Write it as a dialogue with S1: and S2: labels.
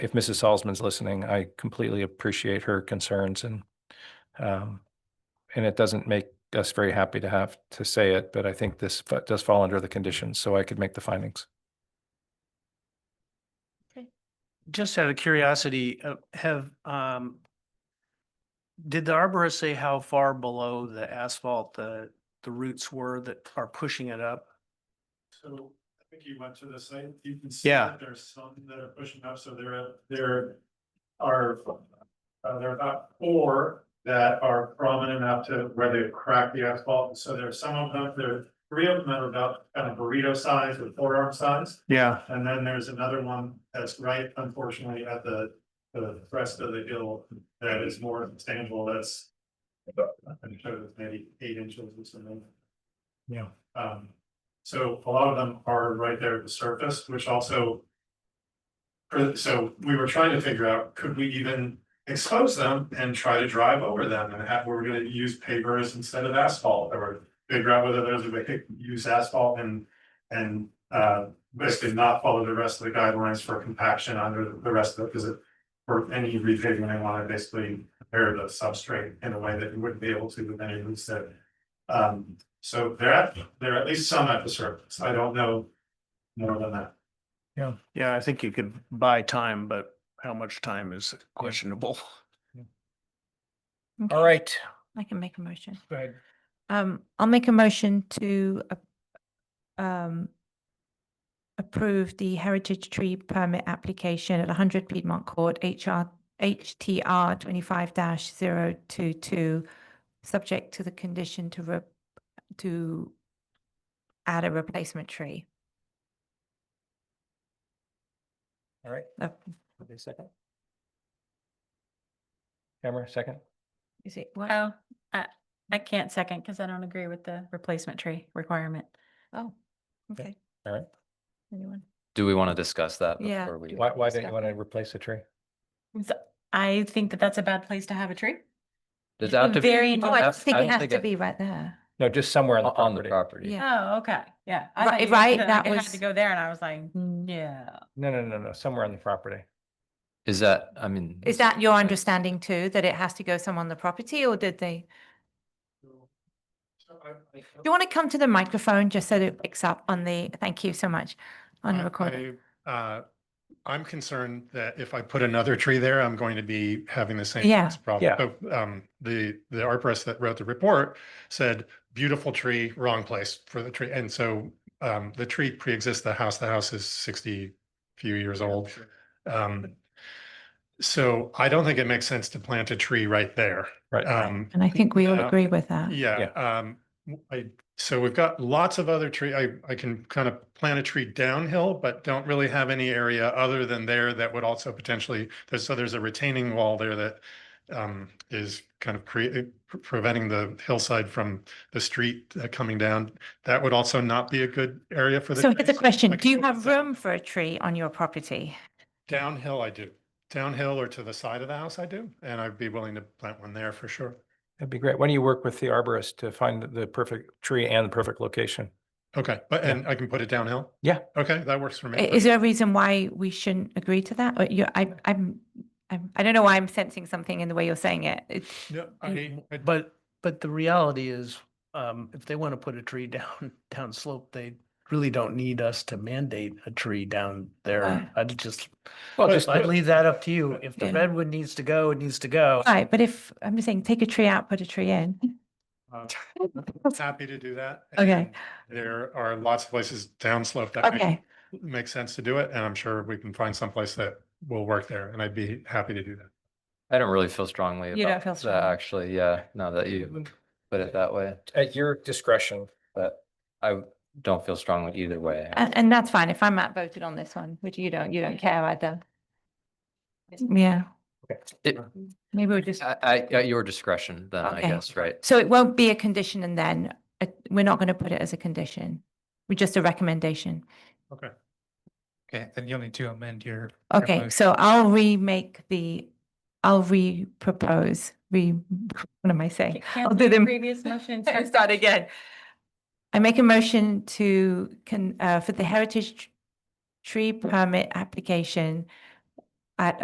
S1: if Mrs. Salzman's listening, I completely appreciate her concerns and um, and it doesn't make us very happy to have to say it, but I think this fa- does fall under the conditions, so I could make the findings.
S2: Just out of curiosity, uh, have, um, did the arborist say how far below the asphalt the, the roots were that are pushing it up?
S3: So I think you went to the site, you can see
S2: Yeah.
S3: that there's some that are pushing up, so there, are- there are, uh, there are about four that are prominent enough to where they've cracked the asphalt, so there are some of them, there are three of them that are about kind of burrito size or forearm size,
S2: Yeah.
S3: and then there's another one that's right unfortunately at the, the crest of the hill that is more substantial, that's I'm sure it's maybe eight inches or something.
S2: Yeah.
S3: Um, so a lot of them are right there at the surface, which also. for- So we were trying to figure out, could we even expose them and try to drive over them and have, we're gonna use pavers instead of asphalt or. Figure out whether those, we could use asphalt and, and, uh, basically not follow the rest of the guidelines for compaction under the rest of it, because it. For any repaving, they wanna basically prepare the substrate in a way that you wouldn't be able to with any roots that. Um, so there are, there are at least some at the surface. I don't know more than that.
S2: Yeah, I think you could buy time, but how much time is questionable.
S4: All right.
S5: I can make a motion.
S4: Go ahead.
S5: Um, I'll make a motion to a- um approve the heritage tree permit application at hundred Piedmont Court, HR, HTR twenty-five 22 subject to the condition to re, to add a replacement tree.
S4: All right.
S5: Uh,
S4: Okay, second.
S1: Camera, second?
S5: Is it, what?
S6: Oh, I, I can't second because I don't agree with the replacement tree requirement.
S5: Oh, okay.
S1: all right.
S5: Anyone?
S7: Do we want to discuss that
S5: Yeah.
S7: before we?
S1: Why, why don't you want to replace the tree?
S6: So I think that that's a bad place to have a tree.
S7: Does that have to be
S6: Very
S5: Oh, I
S7: have-
S5: just think
S7: I
S5: it
S7: don't
S5: has
S7: think
S5: to
S7: it-
S5: be right there.
S1: No, just somewhere on the
S7: on the
S1: property.
S7: property?
S5: Yeah.
S6: Oh, okay, yeah. I
S5: Right-
S6: thought you meant
S5: right, that
S6: I had
S5: was-
S6: To go there and I was like, no.
S1: No, no, no, no, somewhere on the property.
S7: Is that, I mean.
S5: Is that your understanding too, that it has to go somewhere on the property or did they?
S3: So I- I-
S5: Do you want to come to the microphone just so that it picks up on the, thank you so much, on the
S3: I-
S5: recording?
S3: I, uh, I'm concerned that if I put another tree there, I'm going to be having the same.
S5: Yeah.
S3: Problem. But, Um, the, the arborist that wrote the report said, beautiful tree, wrong place for the tree. And so, um, the tree pre-exists the house. The house is sixty few years old. Um, so I don't think it makes sense to plant a tree right there.
S1: Right.
S3: Um,
S5: And I think we all
S3: yeah.
S5: agree with that.
S3: yeah, um, w- I, so we've got lots of other tree, I, I can kind of plant a tree downhill, but don't really have any area other than there that would also potentially, there's, so there's a retaining wall there that um, is kind of creating, preventing the hillside from the street uh, coming down. That would also not be a good area for the.
S5: So here's a
S3: trees.
S5: question.
S3: I
S5: Do you
S3: can-
S5: have room for a tree on your property?
S3: Downhill, I do. Downhill or to the side of the house, I do, and I'd be willing to plant one there for sure.
S1: That'd be great. Why don't you work with the arborist to find the perfect tree and the perfect location?
S3: Okay, but,
S1: Yeah.
S3: and I can put it downhill?
S1: Yeah.
S3: Okay, that works for me.
S5: I- Is there a reason why we shouldn't agree to that? Or you, I, I'm, I'm, I don't know why I'm sensing something in the way you're saying it. It's-
S3: No, I,
S2: And-
S3: I-
S2: But, but the reality is, um, if they want to put a tree down, down slope, they really don't need us to mandate a tree down
S5: Right.
S2: there. I'd just,
S1: Well,
S3: But-
S1: just,
S2: I'd leave that up to you. If the
S5: Yeah.
S2: redwood needs to go, it needs to go.
S5: Right, but if, I'm just saying, take a tree out, put a tree in.
S3: uh, happy to do that.
S5: Okay.
S3: and There are lots of places downslope that make-
S5: Okay,
S3: make sense to do it, and I'm sure we can find someplace that will work there, and I'd be happy to do that.
S7: I don't really feel strongly
S5: You don't feel
S7: about that,
S5: strongly.
S7: actually. Yeah, now that you put it that way,
S1: at your discretion.
S7: but I don't feel strongly either way.
S5: and, and that's fine. If I'm outvoted on this one, which you don't, you don't care either. Yeah,
S7: It-
S5: maybe we'll just
S7: I, I, at your discretion then, I
S5: Okay.
S7: guess, right?
S5: So it won't be a condition and then, uh, we're not going to put it as a condition. We're just a recommendation.
S4: Okay, then you'll need to amend your. your
S5: Okay,
S4: motion.
S5: so I'll remake the, I'll re-propose, re, what am I saying? I'll do them.
S6: Previous motion.
S5: Start again. I make a motion to, can, uh, for the heritage tr- tree permit application at